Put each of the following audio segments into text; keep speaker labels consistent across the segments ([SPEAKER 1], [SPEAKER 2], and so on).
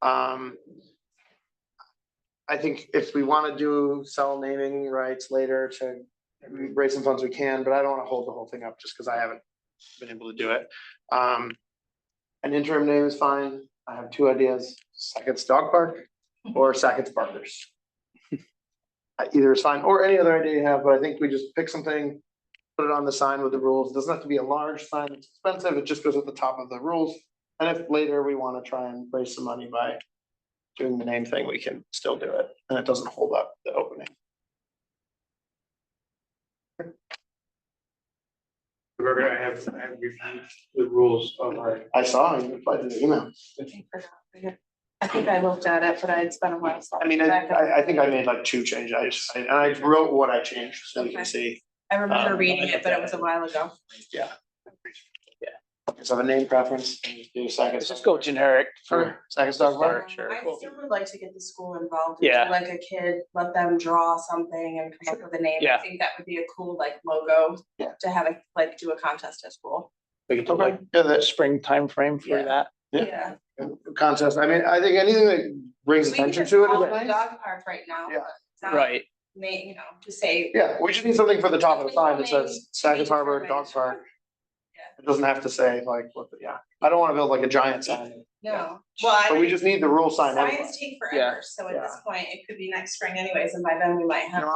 [SPEAKER 1] Um. I think if we wanna do sell naming rights later to raise some funds, we can, but I don't wanna hold the whole thing up just because I haven't been able to do it. Um. An interim name is fine. I have two ideas, Sackett's Dog Park or Sackett's Barbers. Uh, Either is fine, or any other idea you have, but I think we just pick something, put it on the sign with the rules. It Doesn't have to be a large sign, it's expensive, it just goes at the top of the rules. And if later we wanna try and raise some money by doing the name thing, we can still do it, and it doesn't hold up the opening.
[SPEAKER 2] Roberta, I have, I have reviewed the rules of our,
[SPEAKER 1] I saw you replied to the email.
[SPEAKER 3] I think I looked at it, but I had spent a while. so
[SPEAKER 1] I mean, I, I, I think I made like two changes, I just, I- and I wrote what I changed, so you can
[SPEAKER 3] Okay.
[SPEAKER 1] see.
[SPEAKER 3] I remember
[SPEAKER 1] um,
[SPEAKER 3] reading it, but it was a while ago.
[SPEAKER 1] So have a name preference, and just do second.
[SPEAKER 4] Let's just go generic for.
[SPEAKER 1] Second dog park.
[SPEAKER 4] Start, sure.
[SPEAKER 3] I
[SPEAKER 4] Cool.
[SPEAKER 3] still would like to get the school involved. and do
[SPEAKER 4] Yeah.
[SPEAKER 3] Like a kid, let them draw something and come up with a name. I
[SPEAKER 4] Yeah.
[SPEAKER 3] think that would be a cool like logo
[SPEAKER 1] Yeah.
[SPEAKER 3] to have a, like do a contest at school.
[SPEAKER 4] We could do
[SPEAKER 1] Okay,
[SPEAKER 4] like
[SPEAKER 1] yeah, that's
[SPEAKER 4] spring timeframe for
[SPEAKER 3] Yeah.
[SPEAKER 4] that.
[SPEAKER 1] Yeah. contest, I mean, I think anything that brings
[SPEAKER 3] We could
[SPEAKER 1] attention
[SPEAKER 3] just
[SPEAKER 1] to it
[SPEAKER 3] call
[SPEAKER 1] is
[SPEAKER 3] it a
[SPEAKER 1] nice.
[SPEAKER 3] Dog park right now.
[SPEAKER 1] Yeah.
[SPEAKER 3] but it's not
[SPEAKER 4] Right,
[SPEAKER 3] ma- you know, to say.
[SPEAKER 1] Yeah, we just need something for the top of the sign that
[SPEAKER 3] Something
[SPEAKER 1] says Sackett's Harbor Dog
[SPEAKER 3] determined.
[SPEAKER 1] Park,
[SPEAKER 3] Yeah.
[SPEAKER 1] it doesn't have to say like, what, the- yeah, I don't wanna build like a giant sign,
[SPEAKER 3] No, well, I.
[SPEAKER 1] but we just need the rule sign anyway.
[SPEAKER 3] Science take
[SPEAKER 4] Yeah.
[SPEAKER 3] forever, so at this point, it could be next spring anyways, and by then we might
[SPEAKER 1] You
[SPEAKER 3] have.
[SPEAKER 1] know,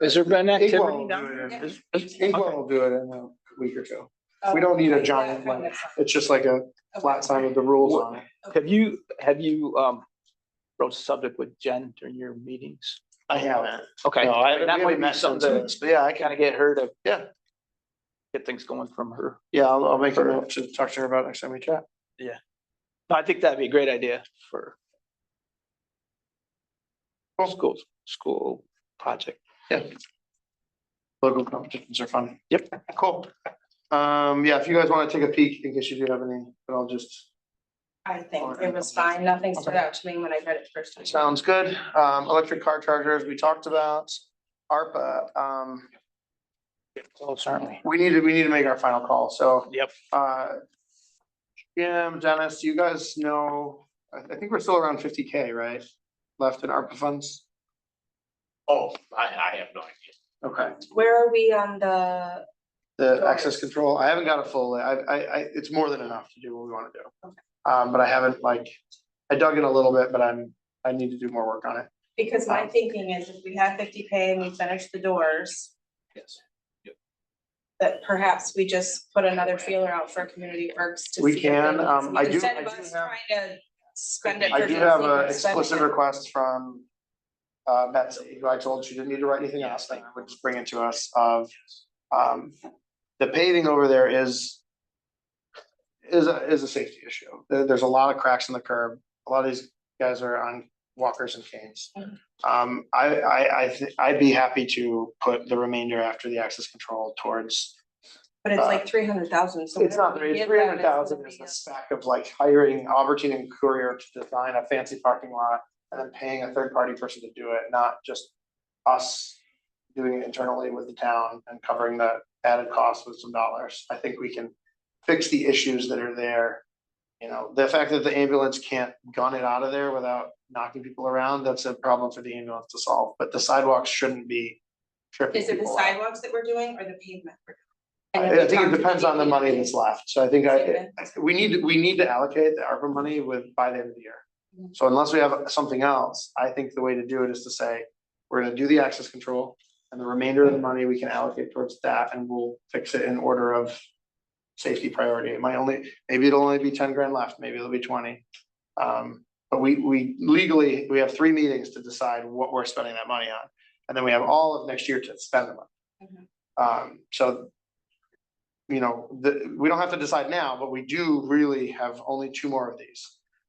[SPEAKER 1] I,
[SPEAKER 4] has there been
[SPEAKER 1] Inkwell
[SPEAKER 4] activity
[SPEAKER 1] will
[SPEAKER 4] down?
[SPEAKER 1] do it in-
[SPEAKER 4] Is- is-
[SPEAKER 1] Inkwell will do it in a week or two, we don't need a
[SPEAKER 3] Oh, Okay.
[SPEAKER 1] giant one. it's just like a flat sign with the rules on it.
[SPEAKER 4] Have you, have you, um, wrote a subject with Jen during your meetings?
[SPEAKER 1] I haven't.
[SPEAKER 4] Okay.
[SPEAKER 1] No, I haven't,
[SPEAKER 4] That
[SPEAKER 1] we
[SPEAKER 4] might
[SPEAKER 1] haven't
[SPEAKER 4] be
[SPEAKER 1] met since
[SPEAKER 4] something
[SPEAKER 1] this, but yeah, I
[SPEAKER 4] to kind
[SPEAKER 1] kinda,
[SPEAKER 4] of get her to.
[SPEAKER 1] Yeah.
[SPEAKER 4] Get things going from her.
[SPEAKER 1] yeah, I'll, I'll make a note to talk to her about next time we chat.
[SPEAKER 4] No, I think that'd be a great idea for. Schools, school project.
[SPEAKER 1] Local competitions are fun.
[SPEAKER 4] Yep.
[SPEAKER 1] Cool. Um, yeah, if you guys wanna take a peek, in case you do have any, but I'll just,
[SPEAKER 3] I think it was fine, nothing stood out to me when I read it first. time.
[SPEAKER 1] sounds good. Um, electric car chargers, we talked about. ARPA, um,
[SPEAKER 4] Oh, certainly.
[SPEAKER 1] we need to, we need to make our final call, so.
[SPEAKER 4] Yep.
[SPEAKER 1] Uh, Jim, Dennis, you guys know, I, I think we're still around fifty K, right? Left in ARPA funds?
[SPEAKER 5] Oh, I, I have no idea.
[SPEAKER 1] Okay.
[SPEAKER 3] Where are we on the,
[SPEAKER 1] The access
[SPEAKER 3] Doors.
[SPEAKER 1] control, I haven't got a full, I, I, I, it's more than enough to do what we wanna do.
[SPEAKER 3] Okay.
[SPEAKER 1] Um, but I haven't like, I dug in a little bit, but I'm, I need to do more work on it.
[SPEAKER 3] because
[SPEAKER 1] Oh.
[SPEAKER 3] my thinking is if we have fifty K and we finish the doors.
[SPEAKER 4] Yes.
[SPEAKER 3] That perhaps we just put another feeler out for community works to see.
[SPEAKER 1] We
[SPEAKER 3] if there
[SPEAKER 1] can,
[SPEAKER 3] is-
[SPEAKER 1] um, I do-
[SPEAKER 3] Instead
[SPEAKER 1] I
[SPEAKER 3] of
[SPEAKER 1] do
[SPEAKER 3] us
[SPEAKER 1] have-
[SPEAKER 3] trying to spend it.
[SPEAKER 1] I
[SPEAKER 3] for
[SPEAKER 1] do
[SPEAKER 3] Jesse,
[SPEAKER 1] have
[SPEAKER 3] we're
[SPEAKER 1] a
[SPEAKER 3] spending
[SPEAKER 1] explicit
[SPEAKER 3] it.
[SPEAKER 1] request from uh, Betsy, who I told she didn't need to write anything else, that would just bring it to us of um, the paving over there is is a, is a safety issue. There- there's a lot of cracks in the curb. A lot of these guys are on walkers and canes.
[SPEAKER 3] Mhm.
[SPEAKER 1] Um, I, I, I, thi- I'd be happy to put the remainder after the access control towards
[SPEAKER 3] But it's
[SPEAKER 1] uh,
[SPEAKER 3] like three hundred thousand, so.
[SPEAKER 1] it's not,
[SPEAKER 3] whatever we
[SPEAKER 1] three
[SPEAKER 3] give them,
[SPEAKER 1] hundred thousand
[SPEAKER 3] gonna
[SPEAKER 1] is
[SPEAKER 3] be
[SPEAKER 1] the stack of like hiring Albertine and Courier to design a fancy parking lot and then paying a third party person to do it, not just us doing it internally with the town and covering the added cost with some dollars. I think we can fix the issues that are there. You know, the fact that the ambulance can't gun it out of there without knocking people around, that's a problem for the ambulance to solve, but the sidewalks shouldn't be
[SPEAKER 3] a-
[SPEAKER 1] tripping
[SPEAKER 3] Is it the
[SPEAKER 1] people out.
[SPEAKER 3] sidewalks that we're doing or the pavement? we're doing? And then
[SPEAKER 1] I I
[SPEAKER 3] we
[SPEAKER 1] think
[SPEAKER 3] talked
[SPEAKER 1] it depends
[SPEAKER 3] about
[SPEAKER 1] on the money that's left, so I think I,
[SPEAKER 3] Okay.
[SPEAKER 1] we need, to- we need to allocate the ARPA money with, by the end of the year.
[SPEAKER 3] Mhm.
[SPEAKER 1] So unless we have something else, I think the way to do it is to say, we're gonna do the access control. And the remainder of the money we can allocate towards that and we'll fix it in order of safety priority. It might only, maybe it'll only be ten grand left, maybe it'll be twenty. Um, but we, we legally, we have three meetings to decide what we're spending that money on. And then we have all of next year to spend the money.
[SPEAKER 3] Mhm.
[SPEAKER 1] Um, so. You know, the, we don't have to decide now, but we do really have only two more of these.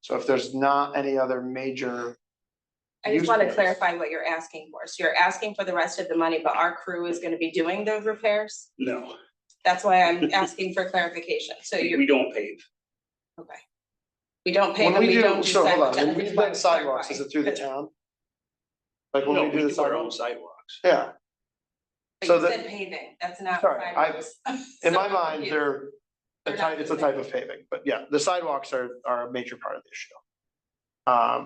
[SPEAKER 1] So if there's not any other major.
[SPEAKER 3] I just
[SPEAKER 1] use
[SPEAKER 3] wanna
[SPEAKER 1] case-
[SPEAKER 3] clarify what you're asking for. So you're asking for the rest of the money, but our crew is gonna be doing those repairs?
[SPEAKER 5] No,
[SPEAKER 3] That's why I'm asking for clarification. So you're,
[SPEAKER 5] we don't pave.
[SPEAKER 3] okay. We don't pay
[SPEAKER 1] When
[SPEAKER 3] them,
[SPEAKER 1] we
[SPEAKER 3] we don't
[SPEAKER 1] do,
[SPEAKER 3] do
[SPEAKER 1] so hold
[SPEAKER 3] sidewalks.
[SPEAKER 1] on, when
[SPEAKER 3] I
[SPEAKER 1] we
[SPEAKER 3] just
[SPEAKER 1] plan
[SPEAKER 3] wanna
[SPEAKER 1] sidewalks, is
[SPEAKER 3] clarify,
[SPEAKER 1] it through the
[SPEAKER 3] 'cause-
[SPEAKER 1] town? Like
[SPEAKER 5] No,
[SPEAKER 1] when we do the
[SPEAKER 5] our own sidewalks.
[SPEAKER 1] sidewalks, yeah,
[SPEAKER 3] but
[SPEAKER 1] so
[SPEAKER 3] you
[SPEAKER 1] the-
[SPEAKER 3] said paving, that's not
[SPEAKER 1] Sorry, I-
[SPEAKER 3] sidewalks.
[SPEAKER 1] in my
[SPEAKER 3] So
[SPEAKER 1] mind,
[SPEAKER 3] confused.
[SPEAKER 1] they're. A
[SPEAKER 3] They're not
[SPEAKER 1] type, it's a
[SPEAKER 3] doing
[SPEAKER 1] type of paving, but yeah, the sidewalks are are a major part of the issue. Um,